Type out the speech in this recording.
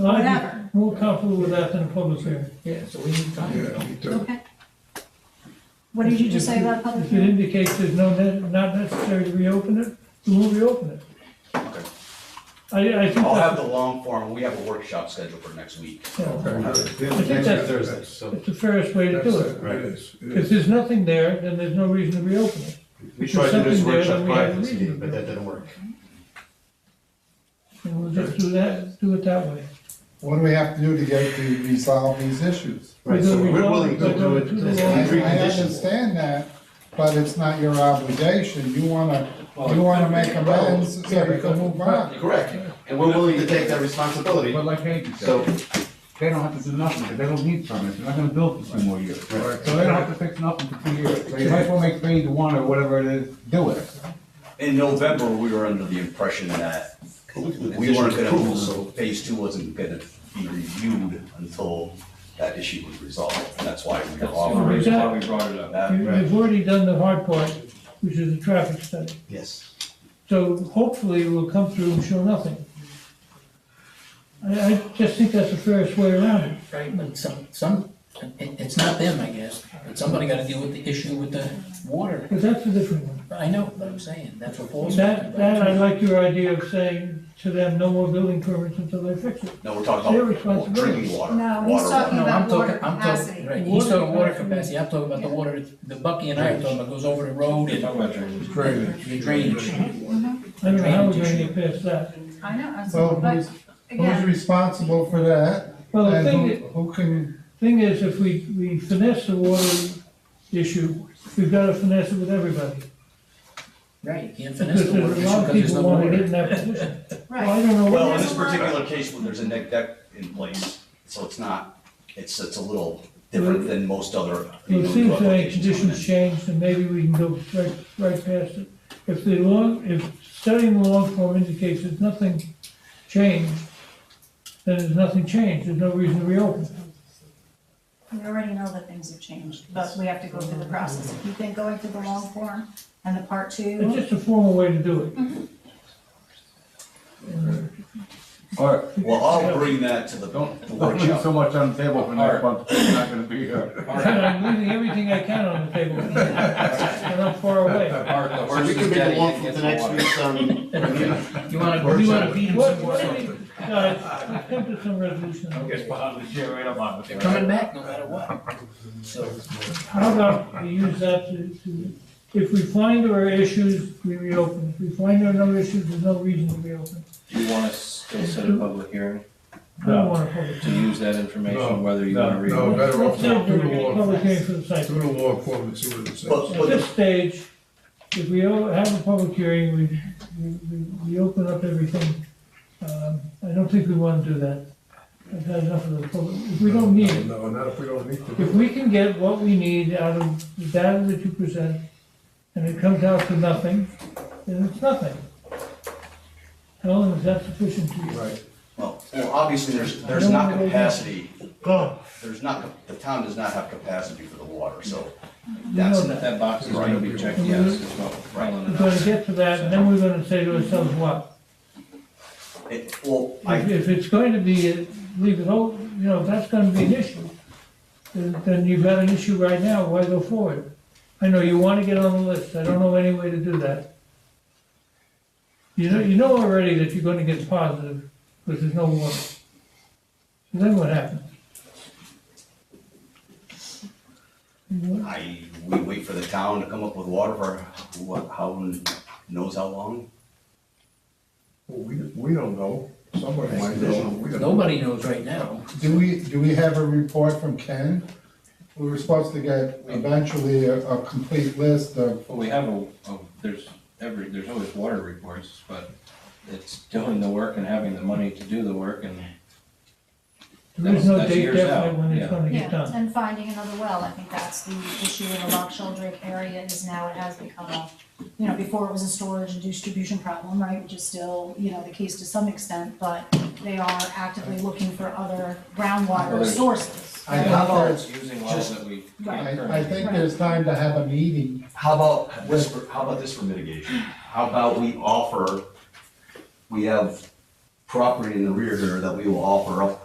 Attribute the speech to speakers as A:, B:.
A: I'd
B: Whatever.
A: be more comfortable with that than a public hearing.
C: Yeah, so we need time.
D: Yeah, me too.
B: Okay. What did you just say about a public
A: If it
B: hearing?
A: indicates there's no, ne- not necessary to reopen it, we won't reopen it. I, I think
E: I'll have
A: that's,
E: the long form, we have a workshop scheduled for next week.
A: yeah,
D: Okay.
A: I think that's-
F: Thursday, so
A: it's the fairest way to
D: That's
A: do
D: it,
A: it.
D: it is, it
A: If
D: is.
A: there's nothing there, then there's no reason to reopen it.
F: we tried to do this
A: something there
F: workshop
A: that we
F: prior
A: have
F: to
A: a
F: this
A: reason
F: meeting,
A: to
F: but
A: do.
F: that didn't work.
A: And we'll just do that, do it that way.
G: What do we have to do to get to resolve these issues?
F: Right, so
A: Whether we
F: we're
A: want-
F: willing to do
A: whether
F: it
A: we do
F: as
A: it
G: I,
A: or
F: a
A: not.
G: I
F: precondition.
G: understand that, but it's not your obligation, you wanna, you wanna make amends so we can move on.
F: Correct, and we're willing to take that responsibility,
H: But like Angie
F: so,
H: said, they don't have to do nothing, 'cause they don't need permits, they're not gonna build for two more years. So
F: right,
H: they don't have to fix nothing for two years, they might as well make phase one or whatever it is, do it.
E: In November, we were under the impression that we weren't gonna move, so phase two wasn't gonna be reviewed until that issue was resolved. And that's why we were offering.
A: reason why
C: we brought it up.
E: that.
A: You- You've already done the hard part, which is the traffic study.
F: yes.
A: So hopefully we'll come through and show nothing. I, I just think that's the fairest way around it.
C: Right, but some, some, it, it's not them, I guess, but somebody gotta deal with the issue with the water.
A: But that's a different one.
C: I know, but I'm saying, that's what Paul's.
A: That, that, I like your idea of saying to them, no more building permits until they fix it.
E: No, we're talking
A: Their
E: about
A: responsibility.
E: drinking water.
B: No, he's
E: water, water.
B: talking
C: No, I'm
B: about water
C: talking, I'm talking,
B: capacity.
C: right, he's talking water
A: Water
C: capacity,
A: capacity.
C: I'm talking about the water, the Bucky and I are talking about goes over the road and. The drainage.
A: I don't know how we're gonna get past that.
B: I know, I was-
G: Well,
B: but
G: who's, who's
B: again,
G: responsible for that?
A: Well, the
G: And
A: thing,
G: who, who can,
A: thing is, if we, we finesse the water issue, we've gotta finesse it with everybody.
C: Right, you can't finish
A: Because
C: the water
A: there's
C: issue
A: a lot of
C: because there's
A: people wanna get
C: no water.
A: in that position. Well, I
B: right,
A: don't know what.
E: Well, in
B: There's
E: this
B: a lot.
E: particular case, when there's a neg deck in place, so it's not, it's, it's a little different than most other.
A: It seems to make
E: applications.
A: conditions changed, and maybe we can go right, right past it. If the long, if studying the long form indicates there's nothing changed, then there's nothing changed, there's no reason to reopen.
B: we already know that things have changed, but we have to go through the process. If you think going through the long form and the part
A: It's
B: two,
A: just a formal way to do it.
H: All right,
E: Well, I'll bring that to the
H: don't,
E: the
H: don't leave
E: workshop.
H: so much on the table for next month, you're not gonna be uh, here.
A: I'm leaving everything I can on the table, and I'm far away.
F: So we can make a walk for the next week's, um,
C: You wanna, you wanna beat him
A: What,
C: some
A: what,
C: more.
A: do we- guys, uh, let's come to some resolution.
C: They're coming back no matter what. So,
A: How about we use that to, to, if we find there are issues, we reopen. If we find there are no issues, there's no reason to reopen.
I: You want us still set a public hearing
A: I don't want to public.
I: to use that information, whether you want to read
D: No,
I: it?
D: better off
A: Let's have
D: not
A: the
D: through the law,
A: public hearing for the site.
D: through the law enforcement, and see what it says.
E: But,
A: At
E: but
A: this stage, if we o- have a public hearing, we, we- we, we open up everything. Um, I don't think we want to do that. I've had enough of the public, if we don't need it.
D: No, not if we don't need
A: If
D: to.
A: we can get what we need out of the data that you present, and it comes out to nothing, then it's nothing. Helen, is that sufficient to you?
D: Right.
E: Well, well, obviously, there's, there's not capacity, there's not, the town does not have capacity for the water, so
A: We know
E: that's,
A: that.
I: That box is going to be checked, yes, is what Colin
A: We're
I: and
A: gonna
I: I.
A: get to that, and then we're gonna say to ourselves, what?
E: it, well,
A: If,
E: I,
A: if it's going to be, uh, leave it open, you know, if that's gonna be an issue, then then you've got an issue right now, why go forward? I know you wanna get on the list, I don't know any way to do that. You know, you know already that you're gonna get positive, because there's no warning. Then what happens?
E: I, we wait for the town to come up with water for who, how, knows how long?
D: Well, we, we don't know, somebody might know, we don't. know.
C: nobody knows right now.
G: do we, do we have a report from Ken? We were supposed to get eventually a, a complete list of,
I: Well, we have a, a- there's every, there's always water reports, but it's doing the work and having the money to do the work and
A: There's no
I: That's- that's
A: date
I: years
A: definite
I: out,
A: when
I: yeah.
A: it's gonna get
B: yeah,
A: done.
B: and finding another well, I think that's the issue in the Loch Shildrick area is now it has become a, you know, before it was a storage and distribution problem, right, which is still, you know, the case to some extent, but they are actively looking for other groundwater
I: Other-
B: sources.
G: I
I: How
G: thought
I: about
G: that's-
I: using wells that we
B: Right.
I: can't
G: I, I
I: currently.
G: think there's time to have a meeting
E: How about this, for- how about this for mitigation? How about we offer, we have property in the rear here that we will offer up